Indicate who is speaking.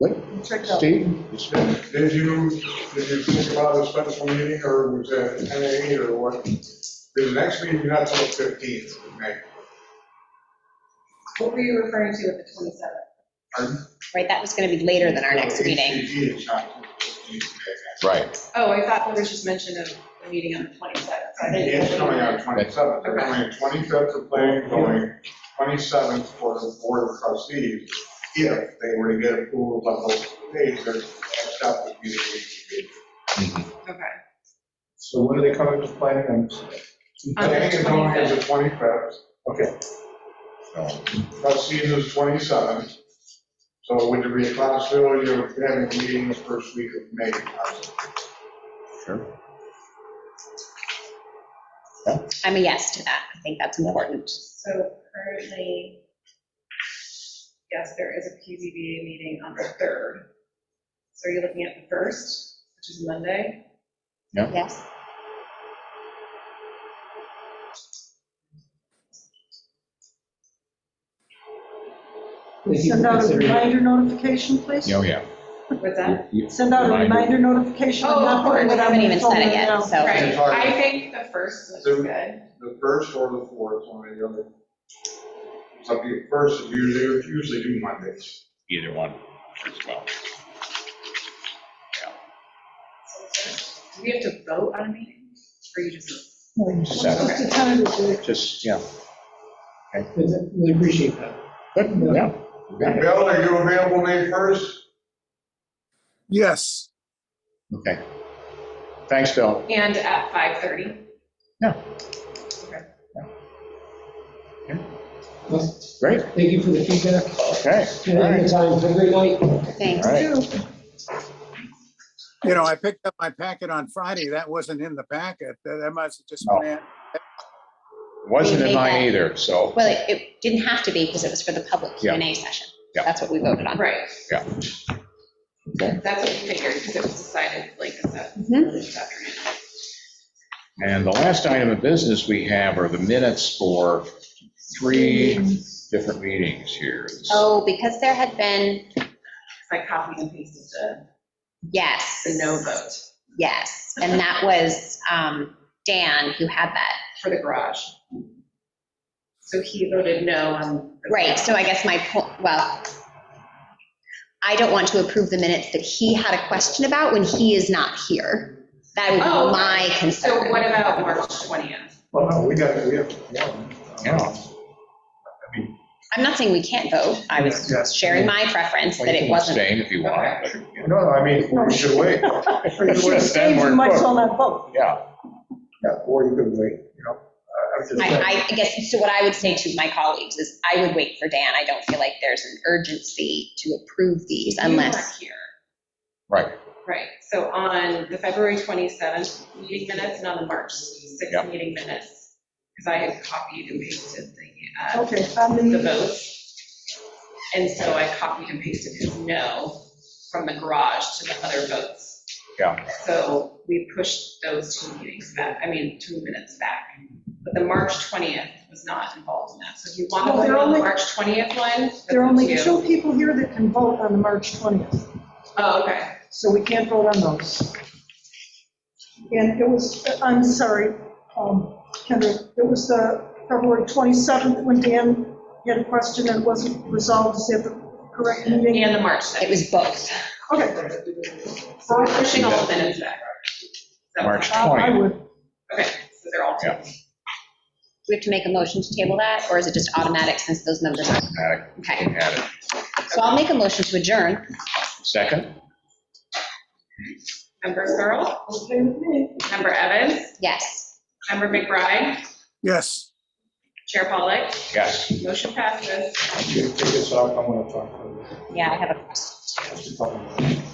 Speaker 1: Wait,
Speaker 2: Check out.
Speaker 1: Steve?
Speaker 3: Did you, did you think about a special meeting, or was it ten eight, or what? The next meeting, you're not till fifteenth, May.
Speaker 2: What were you referring to at the 27th?
Speaker 3: Pardon?
Speaker 4: right? That was going to be later than our next meeting.
Speaker 3: HCG is not till 15th May.
Speaker 1: Right,
Speaker 2: Oh, I thought there was just mention of a meeting on the 27th. so I didn't-
Speaker 3: It's coming out twenty-seventh, they're going twenty-fifth for planning, going twenty-seventh for the board of trustees. If they were to get approval of those days, they're, that's not the meeting.
Speaker 2: Okay.
Speaker 5: So when are they coming to planning? I'm-
Speaker 3: I
Speaker 2: On the
Speaker 3: think it's going as
Speaker 2: 25th.
Speaker 3: the twenty-fifth.
Speaker 5: Okay,
Speaker 1: so,
Speaker 3: Trustees is 27. So would there be a possibility of having a meeting the first week of May?
Speaker 1: sure.
Speaker 4: I'm a yes to that. I think that's important.
Speaker 2: So currently, yes, there is a PZBA meeting on the 3rd. So are you looking at the 1st, which is Monday?
Speaker 4: Yes?
Speaker 6: Send out a reminder notification, please.
Speaker 1: Oh, yeah.
Speaker 2: What's that?
Speaker 1: You-
Speaker 6: Send out a
Speaker 1: Reminder.
Speaker 6: reminder notification.
Speaker 2: Oh, of course.
Speaker 4: We haven't even said it yet,
Speaker 6: Now.
Speaker 4: so.
Speaker 2: Right, I think the 1st looks
Speaker 3: So-
Speaker 2: good.
Speaker 3: The first or the fourth, one or the other? It's up to you. First is usually, usually do Mondays.
Speaker 1: Either one as well.
Speaker 2: Do we have to vote on a meeting? Or you just?
Speaker 1: Just that,
Speaker 6: Just a tentative date.
Speaker 1: Just, yeah,
Speaker 5: we appreciate that.
Speaker 1: good, yeah. we got it.
Speaker 3: Bill, are you available May 1st?
Speaker 7: Yes.
Speaker 1: Okay. Thanks, Bill.
Speaker 2: And at 5:30?
Speaker 5: Well,
Speaker 1: Great,
Speaker 5: Thank you for the feedback.
Speaker 1: okay.
Speaker 5: And your time. Have a great night.
Speaker 4: Thanks.
Speaker 1: All right.
Speaker 7: You know, I picked up my packet on Friday. That wasn't in the packet. That that must have just been,
Speaker 1: Wasn't in mine either, so.
Speaker 4: Well, it- it didn't have to be because it was for the public Q and A session.
Speaker 1: Yeah.
Speaker 4: That's what we voted on.
Speaker 2: Right.
Speaker 1: Yeah.
Speaker 2: That's what we figured, because it was decided, like, I said,
Speaker 4: Mhm.
Speaker 2: this afternoon.
Speaker 1: And the last item of business we have are the minutes for three different meetings here.
Speaker 4: Oh, because there had been,
Speaker 2: I copied and pasted the,
Speaker 4: yes.
Speaker 2: the no vote
Speaker 4: Yes, and that was um, Dan who had that.
Speaker 2: for the garage. So he voted no on. the-
Speaker 4: Right, so I guess my point, well, I don't want to approve the minutes that he had a question about when he is not here. That would
Speaker 2: Oh,
Speaker 4: be
Speaker 2: okay.
Speaker 4: my
Speaker 2: So
Speaker 4: concern.
Speaker 2: what about March 20th?
Speaker 5: Well, no, we got, we have one.
Speaker 1: Yeah.
Speaker 4: I'm not saying we can't vote. I was
Speaker 5: Yeah.
Speaker 4: sharing my preference that it wasn't.
Speaker 1: Abstain if you want. but, you know,
Speaker 5: No, no, I mean,
Speaker 3: We should wait.
Speaker 6: If you abstain, you might as well not vote.
Speaker 1: Yeah,
Speaker 5: yeah, or you could wait, you know. I- I'm just saying.
Speaker 4: I, I guess, so what I would say to my colleagues is I would wait for Dan. I don't feel like there's an urgency to approve these unless,
Speaker 2: You
Speaker 1: right.
Speaker 2: weren't here, right. So on the February 27th meeting minutes and on the March
Speaker 1: Yeah.
Speaker 2: 6th meeting minutes, because I had copied and pasted the, uh,
Speaker 6: Okay, found
Speaker 2: the
Speaker 6: the,
Speaker 2: votes. And so I copied and pasted his no from the garage to the other votes.
Speaker 1: Yeah.
Speaker 2: So we pushed those two meetings back, I mean, two minutes back. But the March 20th was not involved in that. So if you want to
Speaker 6: Well, there
Speaker 2: vote
Speaker 6: are
Speaker 2: on the
Speaker 6: Oh, only-
Speaker 2: March 20th one. that's
Speaker 6: there are only
Speaker 2: up to you.
Speaker 6: two people here that can vote on the March 20th,
Speaker 2: Oh, okay.
Speaker 6: so we can't vote on those. And it was, I'm sorry, um, Kendra, it was the February 27th when Dan had a question and it wasn't resolved, is that the correct meeting?
Speaker 2: And the March 6th.
Speaker 4: it was both.
Speaker 6: Okay,
Speaker 2: So we're pushing all the minutes back. So-
Speaker 1: March
Speaker 6: I I
Speaker 1: 20th.
Speaker 6: would.
Speaker 2: Okay, so they're all.
Speaker 1: Yeah.
Speaker 4: Do we have to make a motion to table that, or is it just automatic since those numbers are?
Speaker 1: Automatic,
Speaker 4: Okay,
Speaker 1: add uh, it.
Speaker 4: so I'll make a motion to adjourn.
Speaker 1: Second?
Speaker 2: Member Searle,
Speaker 6: Okay with me.
Speaker 2: member Evans,
Speaker 4: Yes.
Speaker 2: member McBride,
Speaker 7: yes.
Speaker 2: Chair Pollak,
Speaker 1: Yes.
Speaker 2: motion passes.
Speaker 5: Take this off, I want to talk.
Speaker 4: Yeah, I have a question.
Speaker 5: to you.